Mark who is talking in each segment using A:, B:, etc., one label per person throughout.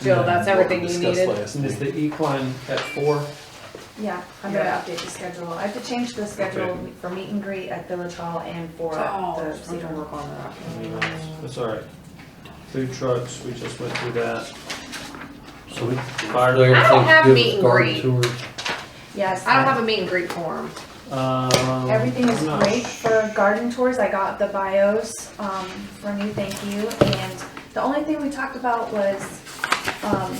A: Jill, that's
B: What we
A: everything you
B: discussed
A: needed.
B: last
C: And is
B: meeting.
C: the equine at four?
D: Yeah, I'm gonna update the schedule. I have to change the schedule for meet and greet at Village Hall and for the Cedar Brook.
E: on that.
C: That's all right. Food trucks, we just went through that.
B: So we.
C: Fire-
B: Everything's
A: I don't have
B: good with
A: meet and
B: garden
A: greet.
B: tours.
D: Yes.
A: I don't have a meet and greet form.
C: Um,
D: Everything is
C: I'm not
D: great
C: sh-
D: for garden tours. I got the bios, um, from you, thank you. And the only thing we talked about was, um,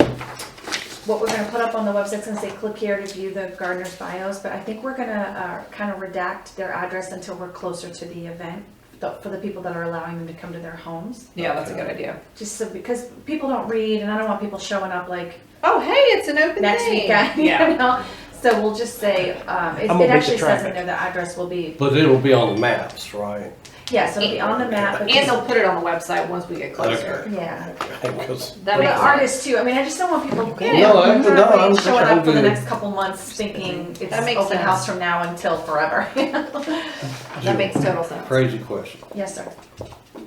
D: what we're gonna put up on the website's gonna say, click here to view the gardener's bios, but I think we're gonna, uh, kind of redact their address until we're closer to the event, the- for the people that are allowing them to come to their homes.
A: Yeah, that's a good idea.
D: Just so, because people don't read and I don't want people showing up like
A: Oh, hey, it's an open
D: next
A: day.
D: weekend, you
A: Yeah.
D: know? So we'll just say, um, it
F: I'm
D: it
F: gonna beat the
D: actually says in
F: traffic.
D: there the address will be
B: But it'll be on the maps, right?
D: Yes, it'll be on the map, but
A: And
D: just-
A: they'll put it on the website once we get closer.
D: yeah.
B: Because
A: That
D: For the
A: makes sense.
D: artists too, I mean, I just don't want people
A: Yeah. No,
B: I- no, I'm sure
D: showing up for the
B: I'm good.
D: next couple months thinking it's
A: That makes
D: open
A: sense.
D: house from now until forever.
A: That makes total sense.
B: Crazy question.
D: Yes, sir.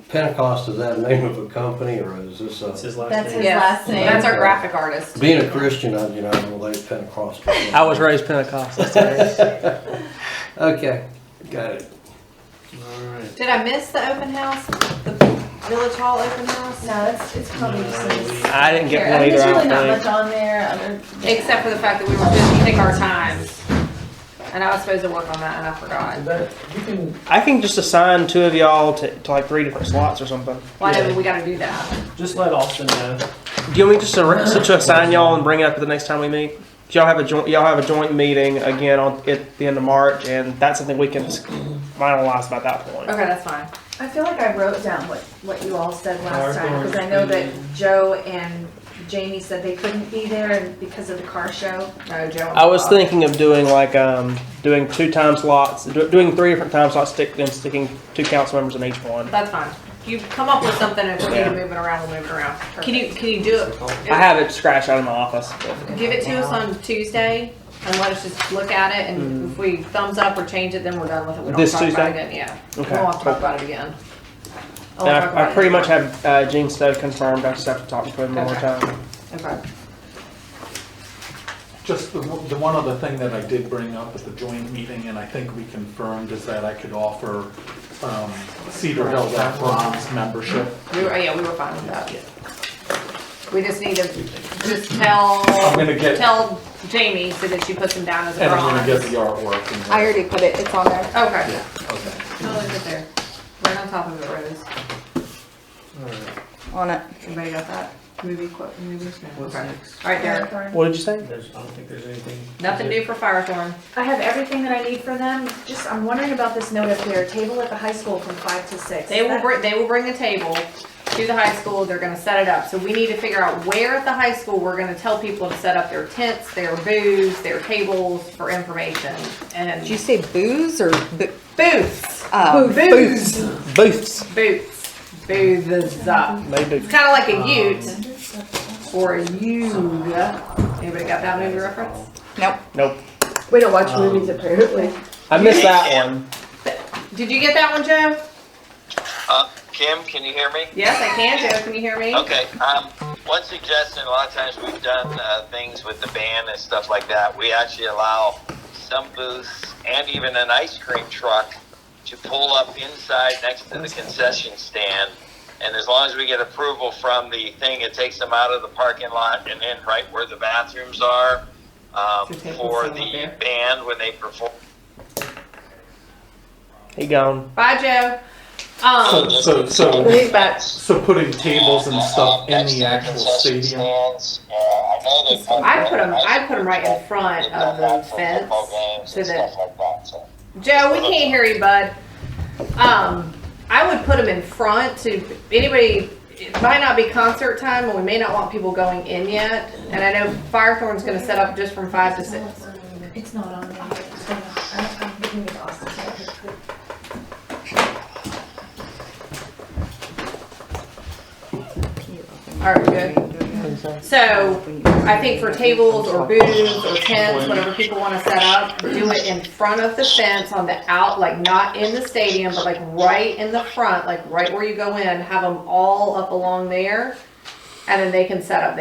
B: Pentecost, is that a name of a company or is this
C: That's
B: a,
C: his last
D: That's
C: name.
D: his
A: Yes.
D: last name.
A: That's our graphic artist.
B: being a Christian, I, you know, I'm related to Pentecost.
F: I was raised Pentecostal. so-
B: Okay, got it.
C: All right.
A: Did I miss the open house? The Village Hall open house?
D: No, it's, it's probably just.
C: Uh,
F: I didn't get
D: I
F: one
D: mean,
F: either.
D: there's
F: I
D: really
F: don't
D: not much
F: think.
D: on there, other.
A: Except for the fact that we were just taking our time. And I was supposed to work on that and I forgot.
C: That, you can,
F: I can just assign two of y'all to, to like three different slots or something.
A: Why did we gotta do that?
C: just let Austin know.
F: Do you want me just to, to assign y'all and bring it up the next time we meet? 'Cause Y'all have a joint. Y'all have a joint meeting again on at the end of March, and that's something we can just finalize about that point.
A: Okay, that's fine.
D: I feel like I wrote down what, what you all said
C: Our
D: last time, because I know that Joe and Jamie said they couldn't be there and because of the car show.
A: No, Joe.
F: I was thinking of doing like um doing two time slots, do- doing three different time slots, stick and sticking two council members in each one.
A: That's fine. You come up with something and if we need to move it around, we'll move it around. Can you, can you do it?
F: I have it scratched out of my office. but-
A: Give it to us on Tuesday and let us just look at it and if we thumbs up or change it, then we're done with it. We don't
F: Mm. This
A: talk about it
F: Tuesday?
A: again, yeah. We
F: Okay.
A: don't have to talk about it again. I won't
F: And
A: talk
F: I,
A: about
F: I
A: it
F: pretty much
A: anymore.
F: have uh, Gene Stowe confirmed. I just have to talk to him one more
A: Okay.
F: time.
A: Okay.
G: Just the, one- the one other thing that I did bring up at the joint meeting, and I think we confirmed, is that I could offer um, Cedar Hill that bronze membership.
A: We were, yeah, we were fine with that. We just need to, just tell,
G: I'm gonna get-
A: tell Jamie so that she puts him down as a
G: And I'm gonna get
A: bronze.
G: the artwork and.
E: I already put it, it's on there.
A: Okay,
G: Yeah, okay.
A: totally good there. Right on top of it, Rose.
E: On it.
A: Everybody got that? Movie quote, movies? No,
C: What's
A: okay.
C: next?
A: All right, Derek.
F: What did you say?
C: There's, I don't think there's anything.
A: Nothing new for Firethorn.
D: I have everything that I need for them, just, I'm wondering about this note up here, table at the high school from five to six.
A: They will
D: That-
A: bring, they will bring the table to the high school, they're gonna set it up, so we need to figure out where at the high school we're gonna tell people to set up their tents, their booths, their tables for information,
E: Did you
A: and
E: say booze or bo-
A: booths,
E: uh,
A: Booths.
F: Booths.
A: boots, booths up.
F: Maybe.
A: It's kind of like a ute or a yuga. Anybody got that movie reference?
E: Nope.
F: Nope.
E: We don't watch
C: Um, movies,
E: apparently.
F: I missed that one.
A: Did you get that one, Joe?
H: Uh, Kim, can you hear me?
A: Yes, I can, Joe. Can you hear me?
H: Okay. Um, one suggestion: a lot of times we've done uh, things with the band and stuff like that. We actually allow some booths and even an ice cream truck to pull up inside next to the concession stand. And as long as we get approval from the thing, it takes them out of the parking lot and in right where the bathrooms are um,
A: So take them
H: for
A: somewhere
H: the
A: there.
H: band when they perform.
F: He gone.
A: Bye, Joe.
G: So,
A: Um,
G: so, so,
E: He's back.
G: so putting tables and stuff in
H: Next to
G: the actual
H: concession
G: stadium.
H: stands, uh, I know they put
A: I put them.
H: ice
A: I put them right in front of the fence. So that Joe, we can't hear you, bud. Um, I would put them in front to anybody. It might not be concert time, and we may not want people going in yet. And I know Firethorn's going to set up just from five to six.
D: It's not on there. It's not- I- I'm giving it to Austin.
A: All right, we're good. So I think for tables or booths or tents, whatever people want to set up, do it in front of the fence on the out, like not in the stadium, but like right in the front, like right where you go in, have them all up along there. And then they can set up